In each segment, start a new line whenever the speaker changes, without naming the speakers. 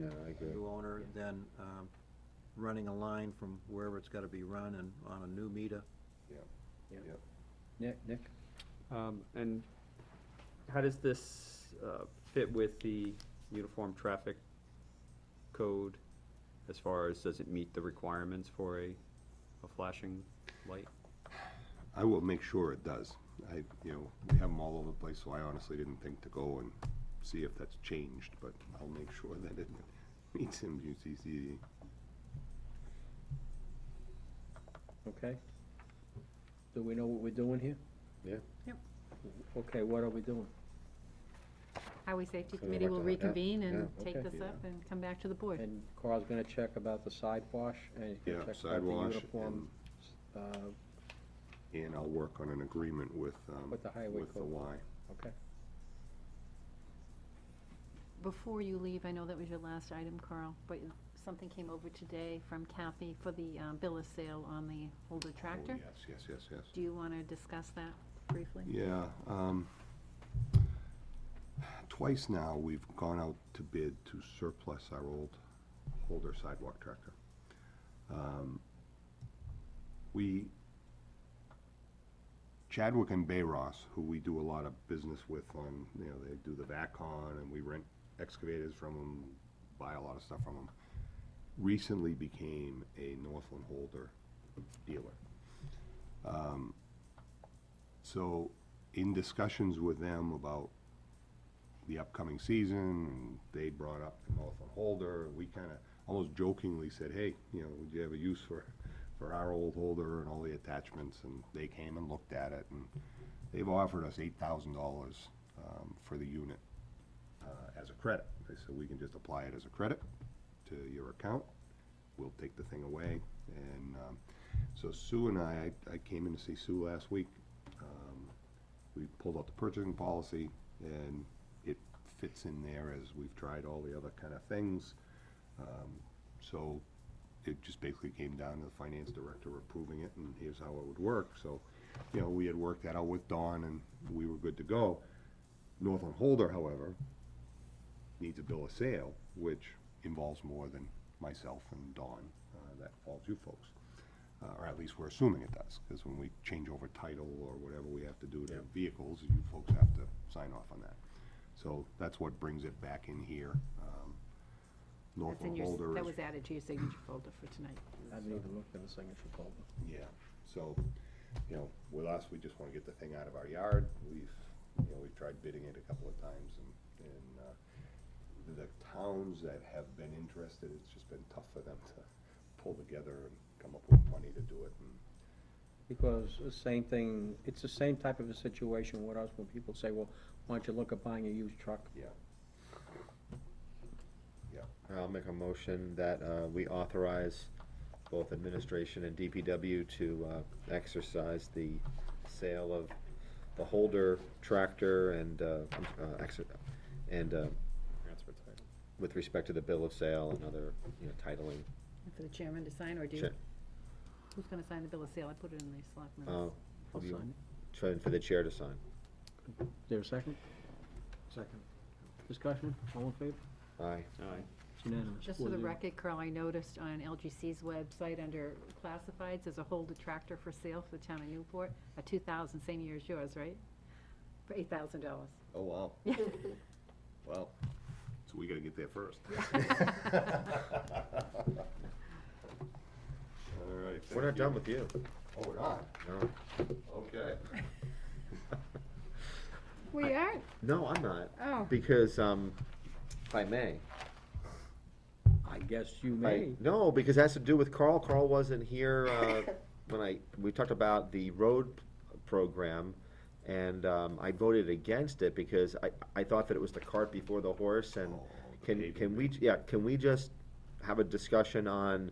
Yeah,
I agree.
new owner, then um, running a line from wherever it's got to be run and on a new meter.
Nick, Nick?
Um, and how does this, uh, fit with the uniform traffic code as far as, does it meet the requirements for a, a flashing light?
I will make sure it does. I, you know, we have them all over the place, so I honestly didn't think to go and see if that's changed, but I'll make sure that it meets MUCC.
Okay. Do we know what we're doing here?
Yeah.
Yep.
Okay, what are we doing?
Highway Safety
So
Committee
what the-
will
yeah,
reconvene and
yeah.
take
Okay.
this up and come back to the board.
And Carl's gonna check about the side wash, and he's
Yeah,
gonna check about the
sidewash,
uniform, uh,
and I'll work on an agreement with, um,
With the highway
with the
code.
Y.
okay.
Before you leave, I know that was your last item, Carl, but something came over today from Kathy for the um, bill of sale on the older
Oh,
tractor.
Yes, yes, yes, yes.
Do you want to discuss that briefly?
Yeah, um, twice now, we've gone out to bid to surplus our old Holder sidewalk tractor. Um, We, Chadwick and Bay Ross, who we do a lot of business with on, you know, they do the VACon, and we rent excavators from them, buy a lot of stuff from them, recently became a Northland Holder dealer. So, in discussions with them about the upcoming season, they brought up the Northland Holder, we kinda almost jokingly said, hey, you know, would you have a use for, for our old holder and all the attachments, and they came and looked at it, and they've offered us eight thousand dollars, um, for the unit, uh, as a credit. They said, we can just apply it as a credit to your account, we'll take the thing away, and, um, so Sue and I, I, I came in to see Sue last week, um, we pulled out the purchasing policy, and it fits in there as we've tried all the other kind of things. Um, So it just basically came down to the finance director approving it, and here's how it would work. So, you know, we had worked that out with Dawn, and we were good to go. Northland Holder, however, needs a bill of sale, which involves more than myself and Dawn. Uh, That falls you folks uh, or at least we're assuming it does, because when we change over title or whatever we have to do to vehicles, you folks have to sign off on that. So that's what brings it back in here. um,
That's in
Northland
your s-
Holder
That
is,
was added to your signature folder for tonight.
I haven't even looked at the signature folder.
yeah, so, you know, with us, we just want to get the thing out of our yard. We've, you know, we've tried bidding it a couple of times, and, and uh, the towns that have been interested, it's just been tough for them to pull together and come up with money to do it, and
Because the same thing, it's the same type of a situation with us, when people say, well, why don't you look at buying a used truck?
Yeah. Yeah,
I'll make a motion that, uh, we authorize both administration and DPW to, uh, exercise the sale of the holder tractor and, uh, I'm s- uh, exer- and, uh, with respect to the bill of sale and other, you know, titling.
For the chairman to sign, or do you?
Sure.
Who's going to sign the bill of sale? I put it in the select
Uh,
minutes.
I'll
you-
sign
try and for the chair to sign.
Is there a second?
Second.
Discussion, all in favor?
Aye.
Aye.
It's unanimous.
Just for
Four
the
zero.
record, Carl, I noticed on LGC's website, under classifieds, there's a Holder tractor for sale for the town of Newport, a 2000, same year as yours, right? For $8,000.
oh, wow.
Yeah.
Well, so we gotta get there first. All right,
We're not
thank
done
you.
with you.
Oh, we're not,
No.
okay.
We aren't.
No, I'm not.
Oh.
Because, um, if I may.
I guess you
I-
may.
No, because it has to do with Carl. Carl wasn't here uh, when I, we talked about the road program, and um, I voted against it because I, I thought that it was the cart before the horse, and
Oh, the
can,
paving
can we, yeah, can we just have a discussion on,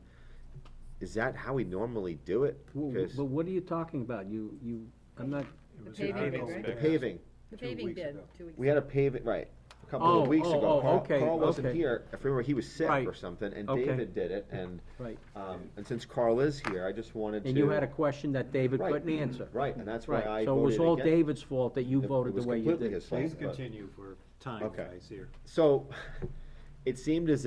is that how we normally do it?
Well,
'Cause
But what are you talking about? You, you, I'm not,
The
was
paving bid,
April.
right?
The paving,
The
Two
paving
weeks
bid,
ago.
two weeks.
we had a paving, right, a couple of
Oh,
weeks
oh,
ago.
oh,
Carl-
okay,
Carl wasn't
okay.
here, if I remember, he was sick
Right.
or something, and
Okay.
David did it, and,
right.
um, and since Carl is here, I just wanted to.
And you had a question that David
Right.
couldn't answer.
Right, and that's why
Right,
I voted against.
so it was all David's fault that you
It- it
voted the
was
way you
completely
did.
his fault,
Please
but-
continue for time,
Okay.
guys, here.
So, it seemed as